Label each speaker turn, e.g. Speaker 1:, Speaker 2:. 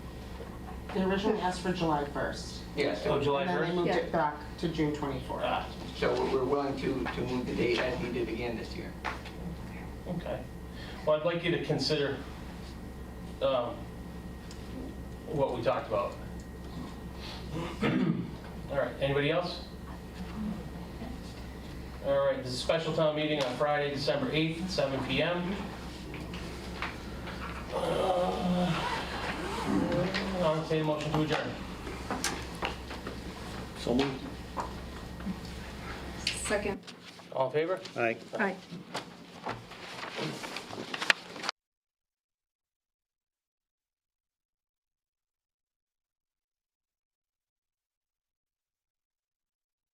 Speaker 1: They originally asked for July 1st.
Speaker 2: Yeah, so.
Speaker 3: Oh, July
Speaker 1: And then they
Speaker 3: 1st?
Speaker 1: moved
Speaker 4: Yeah.
Speaker 1: it back to June 24th.
Speaker 3: Ah,
Speaker 2: So we're- we're willing to, to move the date as we did again this year.
Speaker 3: okay. Well, I'd like you to consider um, what we talked about. All right, anybody else? All right, this is a special town meeting on Friday, December 8th, seven PM. Uh, I'll entertain a motion to adjourn.
Speaker 5: So moved.
Speaker 4: Second.
Speaker 3: All in favor?
Speaker 5: Aye.
Speaker 4: Aye.